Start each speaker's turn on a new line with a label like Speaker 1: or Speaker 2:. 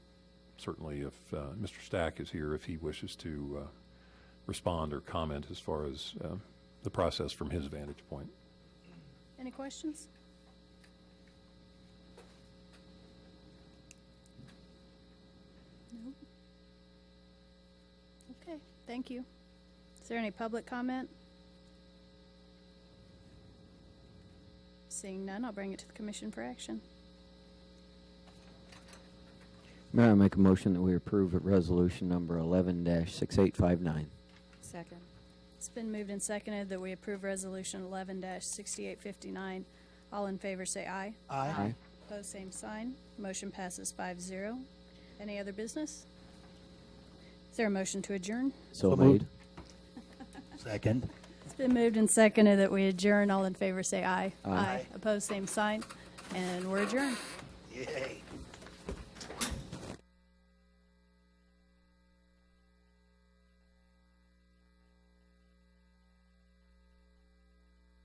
Speaker 1: certainly if uh, Mr. Stack is here, if he wishes to uh, respond or comment as far as uh, the process from his vantage point.
Speaker 2: Any questions? No? Okay, thank you. Is there any public comment? Seeing none, I'll bring it to the commission for action.
Speaker 3: Mayor, I make a motion that we approve at resolution number eleven six eight five nine.
Speaker 4: Second.
Speaker 2: It's been moved and seconded that we approve Resolution 11-6859. All in favor, say aye.
Speaker 3: Aye.
Speaker 2: Opposed, same sign. Motion passes 5-0. Any other business? Is there a motion to adjourn?
Speaker 3: So
Speaker 5: So moved.
Speaker 3: made.
Speaker 5: Second.
Speaker 2: It's been moved and seconded that we adjourn. All in favor, say aye.
Speaker 3: Aye.
Speaker 2: Opposed, same sign. And we're adjourned.
Speaker 5: Yay.